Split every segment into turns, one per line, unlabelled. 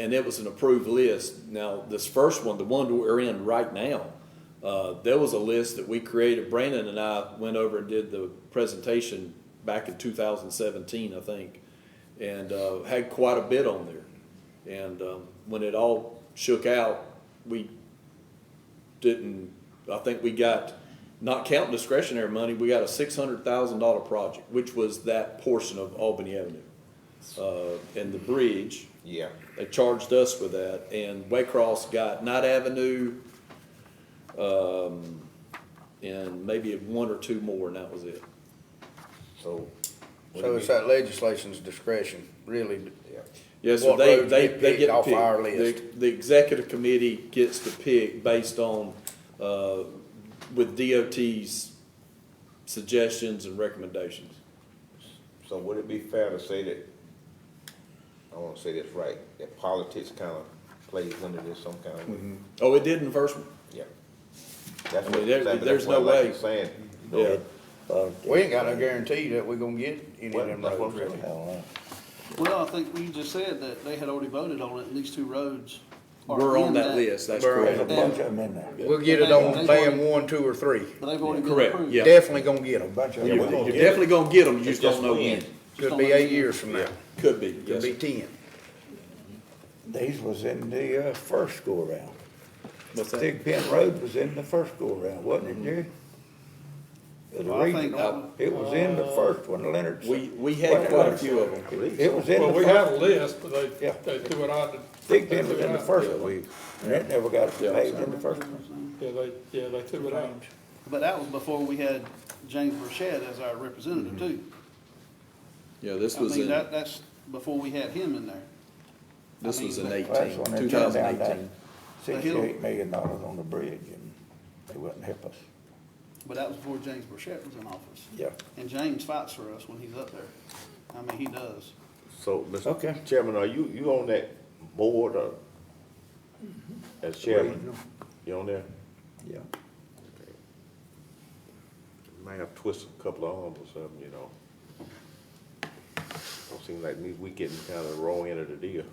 and it was an approved list. Now, this first one, the one that we're in right now, uh, there was a list that we created. Brandon and I went over and did the presentation back in two thousand seventeen, I think, and, uh, had quite a bit on there. And, um, when it all shook out, we didn't, I think we got, not counting discretionary money, we got a six hundred thousand dollar project, which was that portion of Albany Avenue. Uh, and the bridge,
Yeah,
they charged us with that, and Waycross got Knight Avenue, um, and maybe one or two more, and that was it.
so. what do
So it's
we-
that legislation's discretion, really.
yeah.
Yeah, so
What
they,
roads
they,
get
they
picked
get to
off
pick.
our
The-
list?
The executive committee gets to pick based on, uh, with DOT's suggestions and recommendations.
So would it be fair to say that, I wanna say this right, that politics kinda plays under this some kind of
Mm-hmm.
way?
Oh, it did in the first one?
Yeah. That's
I
what,
mean, there-
that's
there's
what
no
like
way.
you're saying.
Yeah.
We ain't got no guarantee that we're gonna get any
Well,
of them
that's what
roads,
I'm
really.
saying.
Well, I think you just said that they had already voted on it, and these two roads are
We're on
in
that list, that's
We're on
correct.
it.
bunch of
them in there.
We'll get it on band one, two, or three.
But they've already been
Correct,
approved.
yeah.
Definitely gonna get them.
Bunch of
You're
them.
you're definitely gonna get them, you
It's
just don't
just
know
when.
when.
Could be eight years from now,
Could be,
could
yes.
be ten.
These was in the uh, first go around.
What's that?
Big Pin Road was in the first go around, wasn't it, Jerry? It
Well,
was
I think uh, that
regional. It was in the first one, Leonard's.
We, we had quite a few of them.
It was in
Well,
the
we have
first,
a list, but
Yeah.
they, they threw it out.
Big
they
Pin
threw
was
it
in the
out.
first one. And it never got paved in the first one.
Yeah, they, yeah, they threw it out.
But that was before we had James Burchett as our representative too.
Yeah, this
I
Mm-hmm. was
mean,
in,
that, that's before we had him in there.
this was in
Well,
Well, that's
eighteen,
when they
two
turned
thousand
down that
eighteen.
Sixty-eight million dollars on the bridge and they wouldn't help us.
But that was before James Burchett was in office.
Yeah.
And James fights for us when he's up there. I mean, he does.
So,
Okay.
Mr. Chairman, are you, you on that board or, as chairman? You on there?
Yeah.
Might have twisted a couple of arms or something, you know. Don't seem like me, we getting kind of the wrong end of the deal.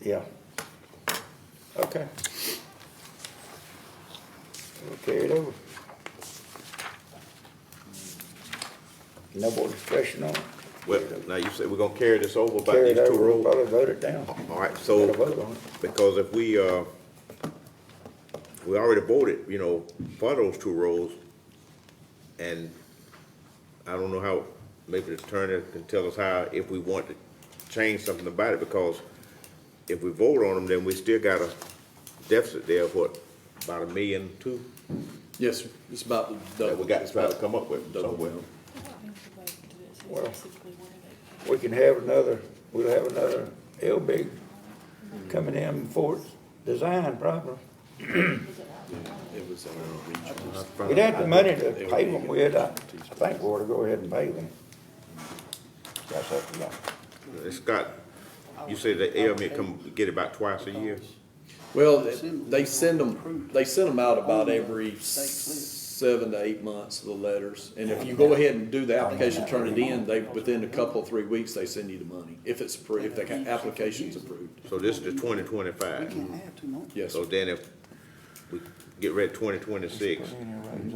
Yeah. Okay. We'll carry it over. No more discussion on it.
Well, now you said we're gonna carry this over about
Carry
these
it
two
over, we'll
roads.
probably vote it down.
All right,
Gotta vote
so,
on it.
because if we, uh, we already voted, you know, for those two roads, and I don't know how, maybe the attorney can tell us how, if we want to change something about it, because if we vote on them, then we still got a deficit there of what, about a million two?
Yes, sir. It's about the
That
double.
we got to try to come up with
Double
somewhere.
down.
Well-
Well.
We can have another, we'll have another L-big coming in for its design problem.
It was in the region.
We'd have the money to pay them, we'd, uh, I think we ought to go ahead and pay them. That's up to y'all.
It's got, you say the ailment E come, get about twice a year?
Well, they send them, they send them out about every seven to eight months, the letters. And if you go ahead and do the application, turn it in, they, within a couple, three weeks, they send you the money. If it's, appro- if the application's approved.
So this is the twenty
We
twenty-five.
can't have too much.
Yes,
So
sir.
then if we get ready twenty twenty-six,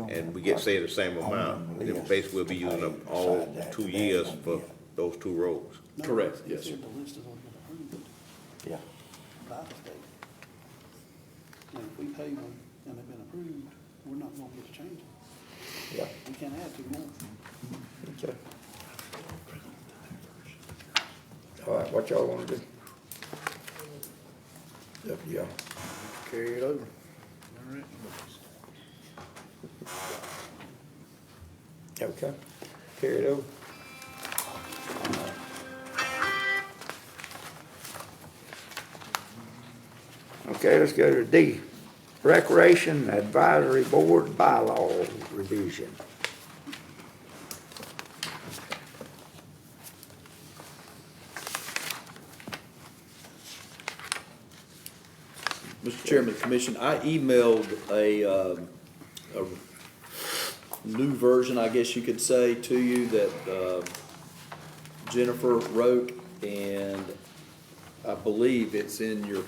and we get, say, the same amount, then basically we'll be using up all two years for those two roads.
correct, yes, sir.
The list has already been approved
Yeah.
by the state. And if we pay them and they've been approved, we're not gonna get to change it.
Yeah,
We can't add two more.
okay. All right, what y'all wanna do? Up to y'all.
Carry it over.
Okay, carry it over. Okay, let's go to D, Recreation Advisory Board Bylaw Revision.
Mr. Chairman, Commission, I emailed a, um, a new version, I guess you could say, to you that uh, Jennifer wrote, and I believe it's in your